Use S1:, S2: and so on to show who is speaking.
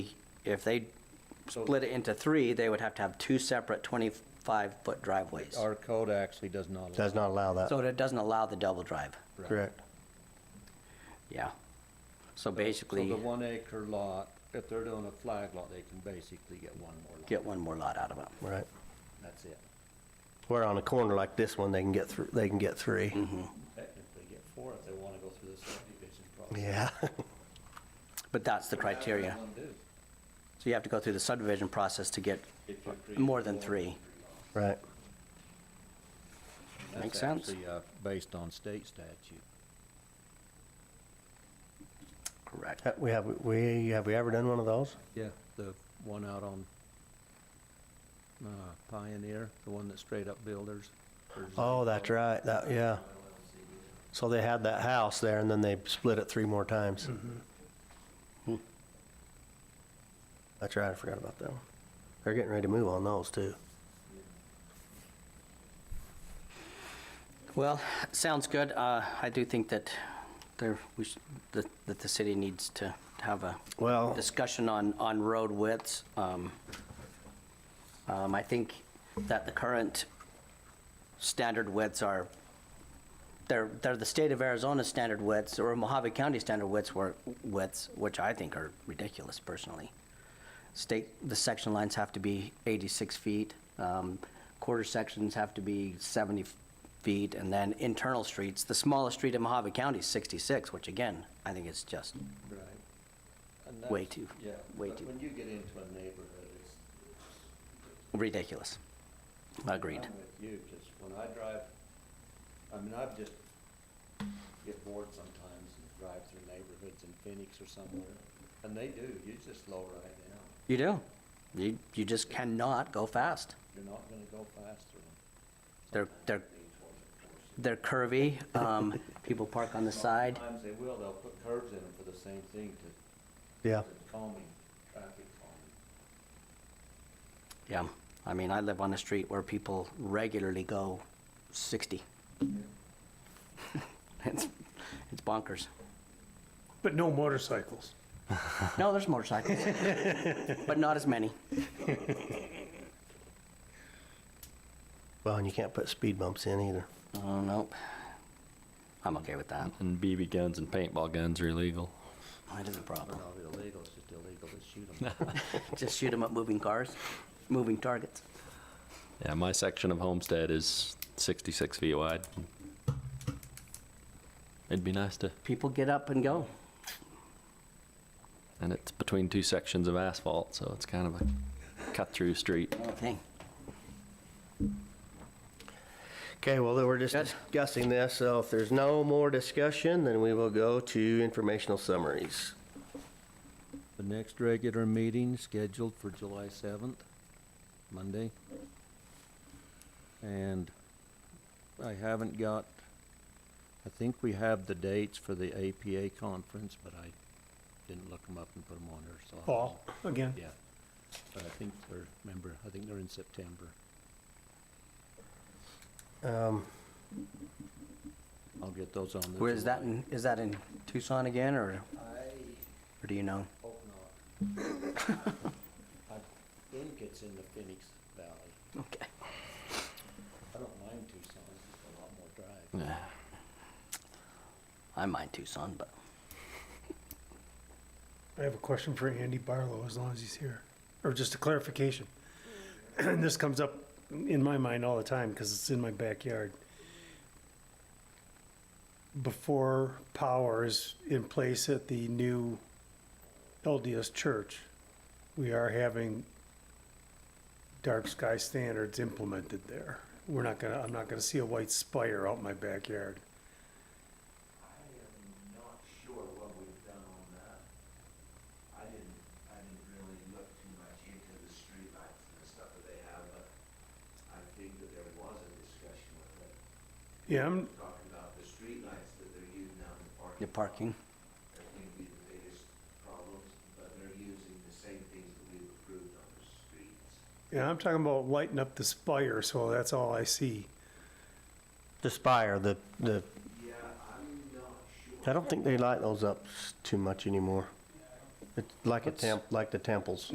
S1: if they
S2: So-
S1: split it into three, they would have to have two separate 25-foot driveways.
S2: Our code actually does not. allow-
S3: Does not allow that,
S1: So it doesn't allow the double drive,
S2: Right.
S3: correct?
S1: yeah. So
S2: So
S1: basically,
S2: the one acre lot, if they're doing a flag lot, they can basically get one more lot.
S1: get one more lot out of it.
S3: Right.
S2: That's it.
S3: Where on a corner like this one, they can get thr they can get three.
S1: Mm-hmm.
S2: Technically get four if they want to go through the subdivision process.
S3: Yeah,
S1: But that's the criteria. So you have to go through the subdivision process to get more than three.
S3: right.
S1: Makes sense.
S2: That's actually, uh, based on state statute.
S1: Correct.
S3: Ha- We have, we, have we ever done one of those?
S2: Yeah, the one out on uh, Pioneer, the one that's straight up builders. There's a-
S3: Oh, that's right, that, yeah. So they had that house there and then they split it three more times.
S1: Mm-hmm.
S3: Hmm. That's right, I forgot about that one. They're getting ready to move on those too.
S1: Well, sounds good. Uh, I do think that there, we should, that, that the city needs to have a
S3: Well,
S1: discussion on, on road widths. Um, um, I think that the current standard widths are, they're, they're the state of Arizona standard widths or Mojave County standard widths were, widths, which I think are ridiculous personally. State, the section lines have to be 86 feet, um, quarter sections have to be 70 feet, and then internal streets, the smallest street in Mojave County is 66, which again, I think is just
S2: Right. And
S1: Way
S2: that's-
S1: too-
S2: Yeah,
S1: way
S2: but
S1: too-
S2: when you get into a neighborhood, it's,
S1: ridiculous. Agreed.
S2: I'm with you, just when I drive, I mean, I've just get bored sometimes and drive through neighborhoods in Phoenix or somewhere, and they do, you just slow right down.
S1: You do. You, you just cannot go fast.
S2: You're not gonna go fast through them.
S1: They're, they're,
S2: Lean towards it, of course.
S1: they're curvy. Um, people park on the side.
S2: Sometimes they will, they'll put curbs in them for the same thing to
S3: yeah,
S2: to calming, traffic calming.
S1: Yeah. I mean, I live on a street where people regularly go 60. It's, it's bonkers.
S4: But no motorcycles.
S1: No, there's motorcycles, but not as many.
S3: well, and you can't put speed bumps in either.
S1: Oh, nope. I'm okay with that.
S5: And BB guns and paintball guns are illegal.
S1: That is a problem.
S2: They're not illegal, it's just illegal to shoot them.
S1: Just shoot them at moving cars, moving targets.
S5: Yeah, my section of homestead is 66 feet wide. It'd be nice to,
S1: People get up and go.
S5: and it's between two sections of asphalt, so it's kind of a cut-through street.
S1: Okay.
S3: Okay, well, then we're just
S1: Good.
S3: discussing this, so if there's no more discussion, then we will go to informational summaries.
S2: The next regular meeting scheduled for July seventh, Monday. And I haven't got, I think we have the dates for the APA conference, but I didn't look them up and put them on there, so. I don't
S4: Fall, again.
S2: know. Yeah, but I think they're, remember, I think they're in September.
S3: Um,
S2: I'll get those on. the
S1: Where is that
S2: July.
S1: in, is that in Tucson again, or, or do you know?
S2: Hope not. I think it's in the Phoenix Valley.
S1: Okay.
S2: I don't mind Tucson, it's a lot more drive.
S5: Yeah.
S1: I mind Tucson, but
S4: I have a question for Andy Barlow, as long as he's here, or just a clarification. And this comes up in my mind all the time, because it's in my backyard. Before power is in place at the new LDS church, we are having dark sky standards implemented there. We're not gonna, I'm not gonna see a white spire out in my backyard.
S6: I am not sure what we've done on that. I didn't, I didn't really look too much into the streetlights and the stuff that they have, but I think that there was a discussion with it.
S4: Yeah, I'm,
S6: Talking about the streetlights that they're using out in the parking.
S1: the parking,
S6: lot, That may be the biggest problems, but they're using the same things that we've approved on the streets.
S4: yeah, I'm talking about lighting up the spire, so that's all I see.
S3: the spire, the, the,
S6: Yeah, I'm not sure.
S3: I don't think they light those up s- too much anymore. It's like a temp, like the temples.